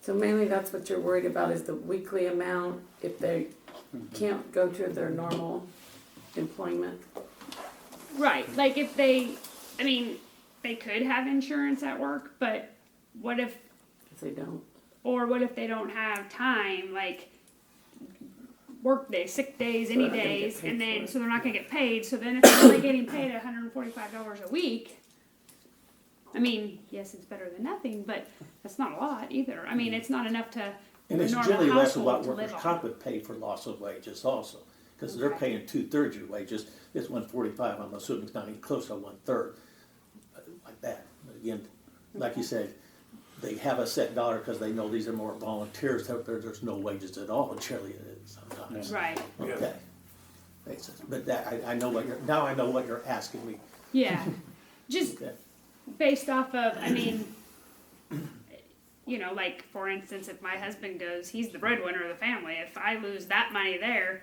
So mainly that's what you're worried about is the weekly amount, if they Mm-hmm. can't go to their normal employment. Right. Like if they, I mean, they could have insurance at work, but what if, If they don't, or what if they don't have time, like work days, sick days, So any they're not gonna get days, paid and for then, it. so they're not gonna get paid, so then if they're only getting paid hundred and forty-five dollars a week, I mean, yes, it's better than nothing, but that's not a lot either. I mean, it's not enough to. Mm. And it's a normal generally less of household what to workers' live on. comp would pay for loss of wages also, because they're Okay. paying two-thirds of your wages, it's one forty-five, I'm assuming it's not even close to one-third, uh, like that. But Again, like you said, they have a set dollar because they know these are more volunteers, so there- there's no wages at all, generally uh, sometimes. Right. Okay. Basis. But that, I, I know what you're, now I know what you're asking me, Yeah. Just okay? based off of i mean you know like for instance if my husband goes he's the breadwinner of the family if i lose that money there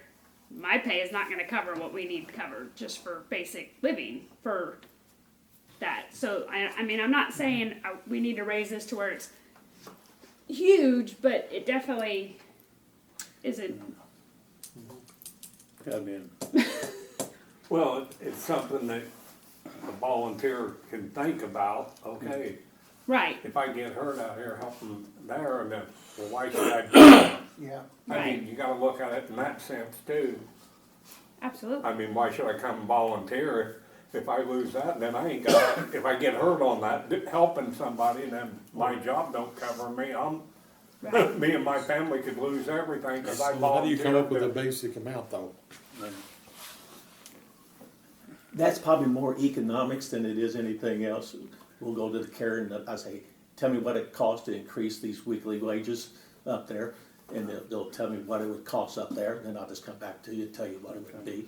my pay is not going to cover what we need covered just for basic living for that so i, I mean i'm not saying uh, we need to raise this to where it's huge but it definitely isn't Come in. Well, it- it's something that a volunteer can think about, okay, right if I get hurt out here helping there, and then, well, why should I do that? Yeah. I Right. mean, you gotta look at it in that sense too. absolutely I mean, why should I come volunteer if, if I lose that, then I ain't got, if I get hurt on that, d- helping somebody, then my job don't cover me, I'm, right me and my family could lose everything, cause So How I do you volunteered. come up with to- a basic amount though? That's probably more economics than it is anything else. We'll go to the Karen, and I say, tell me what it costs to increase these weekly wages up there. And they'll, they'll tell me what it would cost up there, and then I'll just come back to you and tell you what it would be.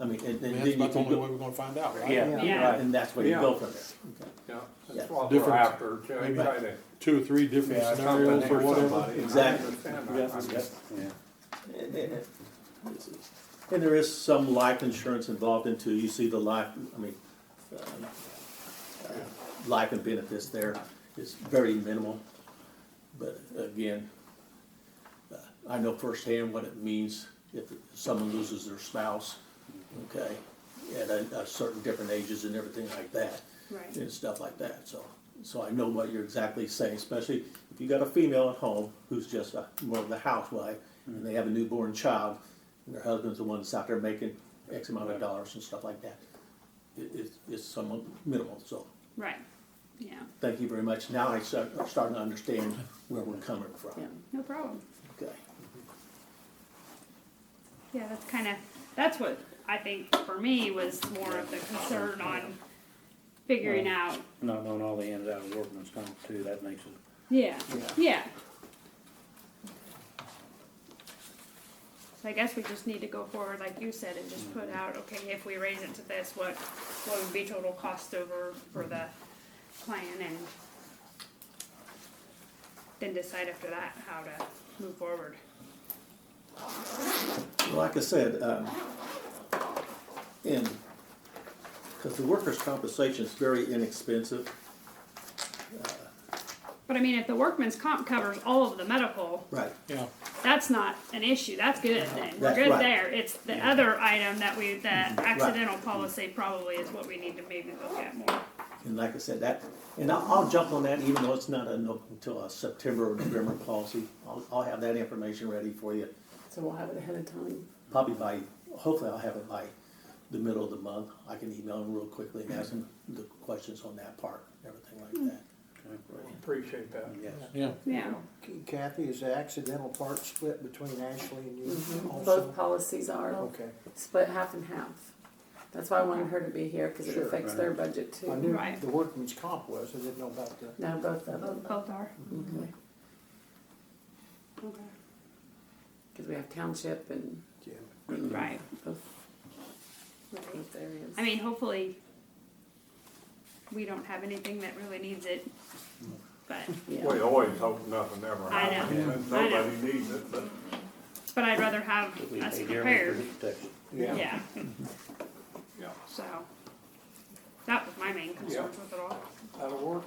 I mean, and and I mean, then that's you about the can only go. way we're gonna find out, right? Yeah, Yeah. right, and that's where you go from there. Yeah, Yeah. that's what we're Different- after, to maybe- try to. Two or three different Yeah, scenarios or whatever. Exactly. Yeah. And- and- And there is some life insurance involved in too. You see the life, I mean, um, uh, life and benefits there is very minimal. But again, uh, I know firsthand what it means if someone loses their spouse, okay? At a, a certain different ages and everything like that right and stuff like that, so. So I know what you're exactly saying, especially if you got a female at home who's just a, more of the housewife, and they have a newborn child, and their husband's the one that's out there making X amount of dollars and stuff like that. It, it's, it's somewhat minimal, so, right yeah thank you very much, now I start, I'm starting to understand where we're coming yeah. from, no problem okay? Yeah, that's kind of, that's what I think for me was more of the concern on figuring out, Not knowing all the ins and outs of workman's comp too, that makes it, yeah, Yeah. yeah. So I guess we just need to go forward, like you said, and just put out, okay, if we raise it to this, what, what would be total cost over for the plan and then decide after that how to move forward. Like I said, um, in, because the workers' compensation is very inexpensive, But I mean, if the workman's comp covers all of the medical, right, Yeah, that's not an issue, that's good then, we're That's good right. there, it's the other item that we, the accidental policy probably is what we need to maybe look at more. And like I said, that, and I'll, I'll jump on that, even though it's not a, until a September or November policy. I'll, I'll have that information ready for you, So we'll have it ahead of time. probably by, hopefully I'll have it by the middle of the month. I can email them real quickly and ask them the questions on that part, and everything like that. Appreciate that. yes. yeah. Yeah, Kathy, is the accidental part split between Ashley and Mm-hmm. you Both also? policies are Okay, split half and half. That's why I wanted her to be here, cause it Sure. affects their budget I too. knew Right. the workman's comp was, I didn't know about the. No, both of them, both both are. Okay. Okay. cause we have township and Right, both, right. both areas. I mean, hopefully, we don't have anything that really needs it, but, Yeah, We always hope nothing ever I know. happens, and I know. nobody needs it, but but I'd rather have We us pay Jeremy prepared, for his protection. yeah, Yeah. so. That was my main concern Yeah. with it all. that'll work.